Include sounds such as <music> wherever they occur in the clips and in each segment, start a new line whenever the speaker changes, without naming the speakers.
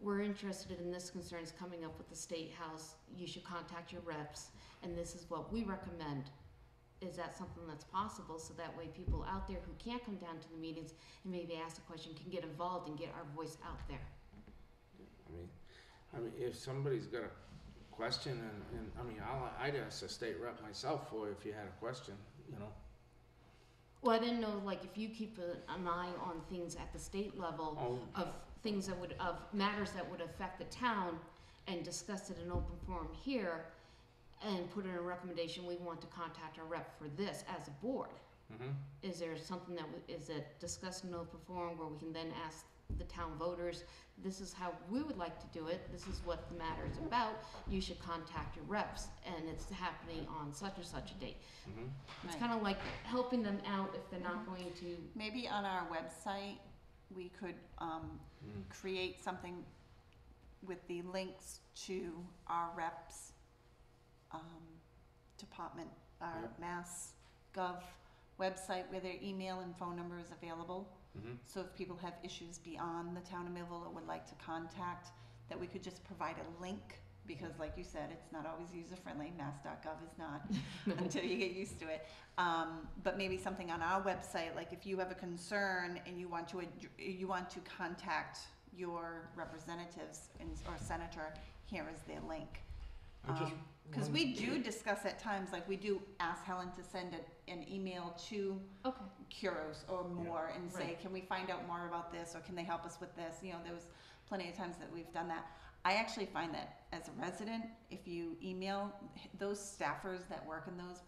we're interested in this concern is coming up with the State House, you should contact your reps, and this is what we recommend. Is that something that's possible, so that way people out there who can't come down to the meetings and maybe ask a question can get involved and get our voice out there?
I mean, I mean, if somebody's got a question, and, and I mean, I'll, I'd ask the state rep myself for if you had a question, you know.
Well, I didn't know, like, if you keep a- an eye on things at the state level
Oh,
of things that would, of matters that would affect the town and discuss it in open forum here and put in a recommendation, we want to contact our rep for this as a board.
mhm.
Is there something that, we- is it discussed in open forum where we can then ask the town voters, this is how we would like to do it, this is what the matter is about, you should contact your reps, and it's happening on such and such a date.
Mhm.
It's
Right.
kind of like helping them out if they're not going to,
Maybe on our website, we could um,
Mm.
create something with the links to our reps, um, department, our
Yeah.
Mass Gov website where their email and phone number is available.
Mhm.
So if people have issues beyond the town of Millville or would like to contact, that we could just provide a link, because like you said, it's not always user-friendly, mass.gov is not, <laughs> until you get used to it. Um, but maybe something on our website, like if you have a concern and you want to, ad- you want to contact your representatives and, or senator, here is their link.
I just
Um, Cause
one-
we do discuss at times, like we do ask Helen to send an, an email to
okay.
Curos or more and say,
Right.
can we find out more about this or can they help us with this? You know, there was plenty of times that we've done that. I actually find that as a resident, if you email those staffers that work in those,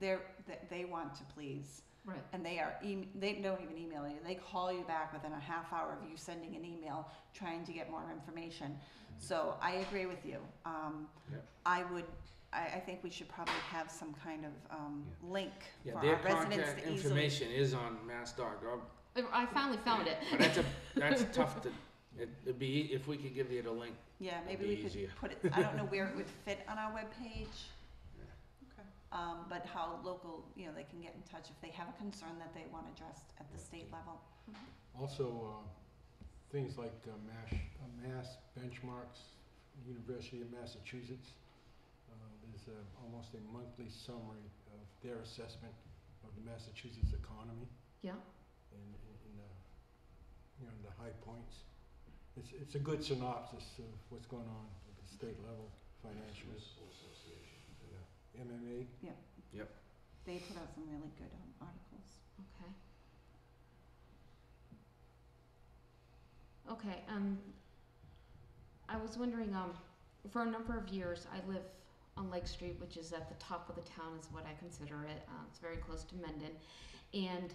they're, that they want to please.
Right.
And they are, em- they don't even email you, they call you back within a half hour of you sending an email trying to get more information. So I agree with you. Um,
Yep.
I would, I, I think we should probably have some kind of, um, link
Yeah,
for
their
our residents
contact
to easily
information is on mass.gov,
I- I finally found it.
<laughs> but that's a, that's
<laughs>
tough to, it- it'd be, e- if we could give you the link.
Yeah,
That'd
maybe
be
we could
easier.
put it, I don't know where
<laughs>
it would fit on our webpage.
Okay.
Um, but how local, you know, they can get in touch if they have a concern that they want addressed at the state level.
Also, uh, things like uh, MASH, uh, mass benchmarks, University of Massachusetts. Uh, there's uh almost a monthly summary of their assessment of the Massachusetts economy
Yeah.
and, and, and uh, you know, the high points. It's, it's a good synopsis of what's going on at the state level financially. Yeah. MMA.
They put out some really good um, articles.
Okay. Okay, um, I was wondering, um, for a number of years, I live on Lake Street, which is at the top of the town, is what I consider it. Uh, it's very close to Mendon. And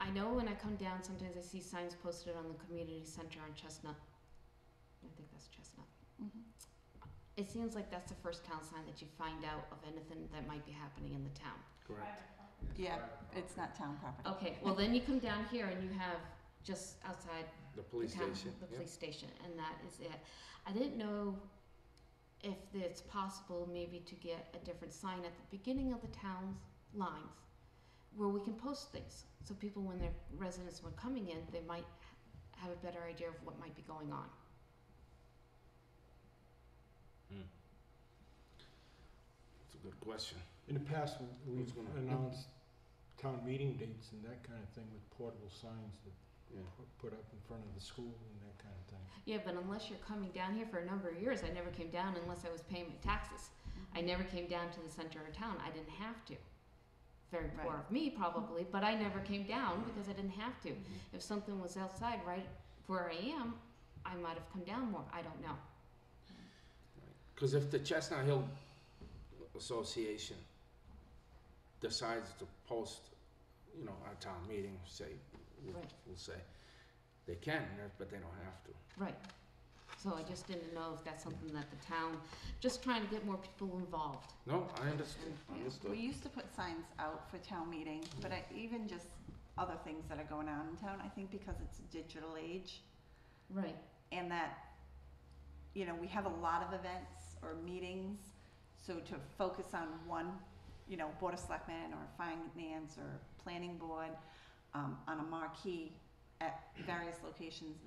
I know when I come down, sometimes I see signs posted on the community center on Chestnut. I think that's Chestnut.
Mm-hmm.
It seems like that's the first town sign that you find out of anything that might be happening in the town.
Correct.
Yeah, It's not town property.
Okay, well then you come down here and you have just outside
The
the
police
town,
station.
the
Yep.
police station, and that is it. I didn't know if it's possible maybe to get a different sign at the beginning of the town's lines where we can post things, so people, when their residents were coming in, they might ha- have a better idea of what might be going on.
That's a good question.
In the past, w-
Who's
we've
gonna-
announced town meeting dates and that kind of thing with portable signs that
Yeah.
pu- put up in front of the school and that kind of thing.
Yeah, but unless you're coming down here for a number of years, I never came down unless I was paying my taxes.
Mm-hmm.
I never came down to the center of town. I didn't have to. Very poor
Right.
of me, probably, but I never came down because I didn't have to. If something was outside right where I am, I might have come down more. I don't know.
Because if the Chestnut Hill Association decides to post, you know, our town meeting, say, we'll,
Right.
we'll say, they can, but they don't have to.
Right. So I just didn't know if that's something that the town, just trying to get more people involved.
No, I understand.
Yeah, We
Understood.
used to put signs out for town meeting, but I, even just other things that are going on in town, I think because it's a digital age,
Right.
and that you know we have a lot of events or meetings so to focus on one you know board of selectmen or finance or planning board um, on a marquee at various locations